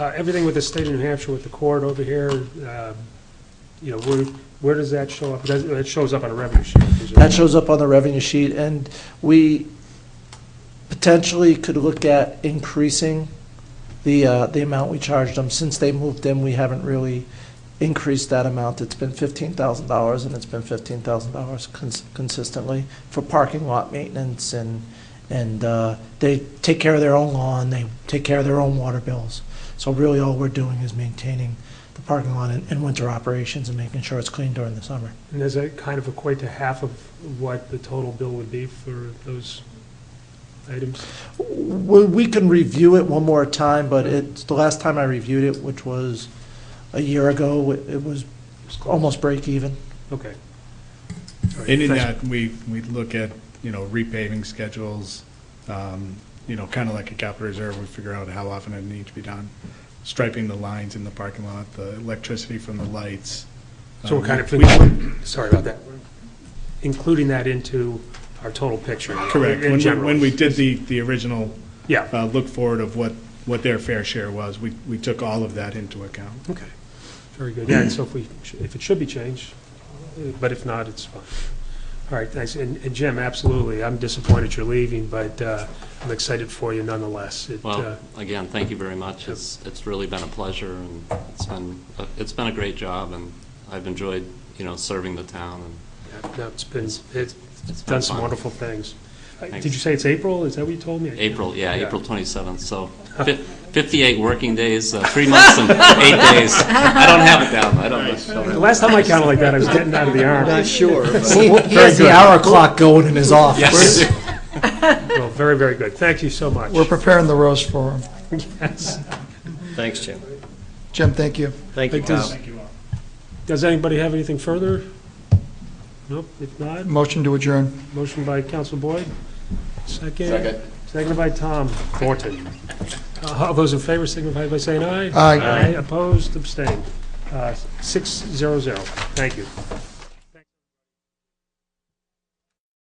Uh, Everything with the state of New Hampshire, with the court over here, um, you know, where, where does that show up? Does- It shows up on a revenue sheet. presumably. That shows up on the revenue sheet, and we potentially could look at increasing the, uh, the amount we charged them. Since they moved in, we haven't really increased that amount. It's been fifteen thousand dollars, and it's been fifteen thousand dollars consistently for parking lot maintenance, and, and, uh, they take care of their own lawn, they take care of their own water bills. So really, all we're doing is maintaining the parking lot and, and winter operations and making sure it's clean during the summer. And does that kind of equate to half of what the total bill would be for those items? Well, we can review it one more time, but it's, the last time I reviewed it, which was a year ago, it it was It's close. almost break even. Okay. All right, And in thanks. that, we, we look at, you know, repaving schedules, um, you know, kind of like a capital reserve, we figure out how often it needs to be done. Striping the lines in the parking lot, the electricity from the lights. So we're Um, kind of, we- thinking- sorry about that, We're including that into our total picture. Correct. In When we, general. when we did the, the original Yeah, uh, look forward of what, what their fair share was, we, we took all of that into account. okay, very good. Yeah, and so if we, if it should be changed, uh, but if not, it's fine. All right, thanks. And and Jim, absolutely, I'm disappointed you're leaving, but uh, I'm excited for you nonetheless. It, uh, Well, again, thank you very much. It's, it's really been a pleasure, and it's been, a- it's been a great job, and I've enjoyed, you know, serving the town, and yeah, no, it's been, it's it's been done some fun. wonderful things. Uh, Did Thanks. you say it's April? Is that what you told me? April, yeah, Yeah. April 27th, so fif- 58 working days, uh, three months and eight days. I don't have it down, I don't know. The last time I counted like that, I was getting out of the army. Not sure. but- He he has the hour clock going in his office. Yes. Well, very, very good. Thank you so much. We're preparing the roast for him. Yes. Thanks, Jim. Jim, thank you. Thank you, Like this- Tom. Does anybody have anything further? Nope, if not, Motion to adjourn. motion by Counsel Boyd, second. Seconded by Tom Thornton. Uh, All those in favor signify by saying aye. Aye. Aye, opposed, abstained. Uh, Six zero zero. Thank you.